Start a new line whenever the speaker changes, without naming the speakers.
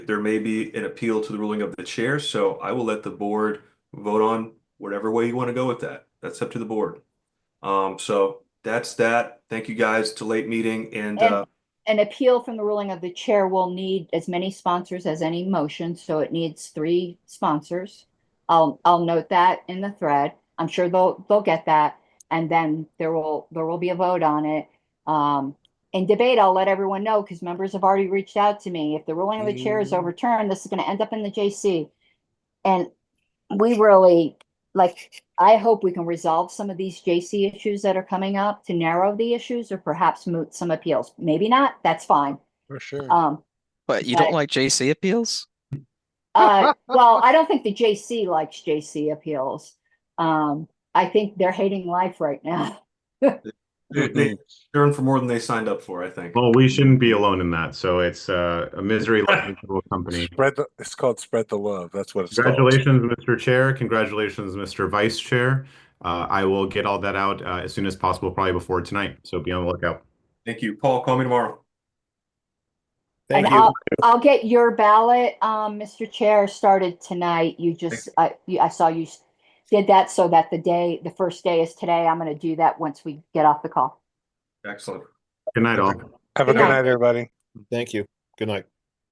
There may be an appeal to the ruling of the chair, so I will let the board vote on whatever way you want to go with that. That's up to the board. Um, so that's that. Thank you guys to late meeting and uh,
An appeal from the ruling of the chair will need as many sponsors as any motion, so it needs three sponsors. I'll, I'll note that in the thread. I'm sure they'll, they'll get that. And then there will, there will be a vote on it. Um, in debate, I'll let everyone know because members have already reached out to me. If the ruling of the chair is
Mm.
overturned, this is going to end up in the JC. And we really, like, I hope we can resolve some of these JC issues that are coming up to narrow the issues or perhaps moot some appeals. Maybe not, that's fine.
For sure.
Um,
But you don't
But-
like JC appeals?
uh, well, I don't think the JC likes JC appeals. Um, I think they're hating life right now.
they- they earned for more than they signed up for, I think.
Well, we shouldn't be alone in that. So it's uh, a misery loving little company.
Spread the, it's called spread the love. That's what it's called.
Congratulations, Mr. Chair. Congratulations, Mr. Vice Chair. Uh, I will get all that out uh, as soon as possible, probably before tonight. So be on the lookout.
Thank you. Paul, call me tomorrow.
And I'll, I'll get your ballot, um, Mr. Chair, started tonight. You just, I, you- I saw you s- did that so that the day, the first day is today. I'm gonna do that once we get off the call.
Excellent.
Good night, all.
Have a
Good
good
night.
night, everybody.
Thank you. Good night.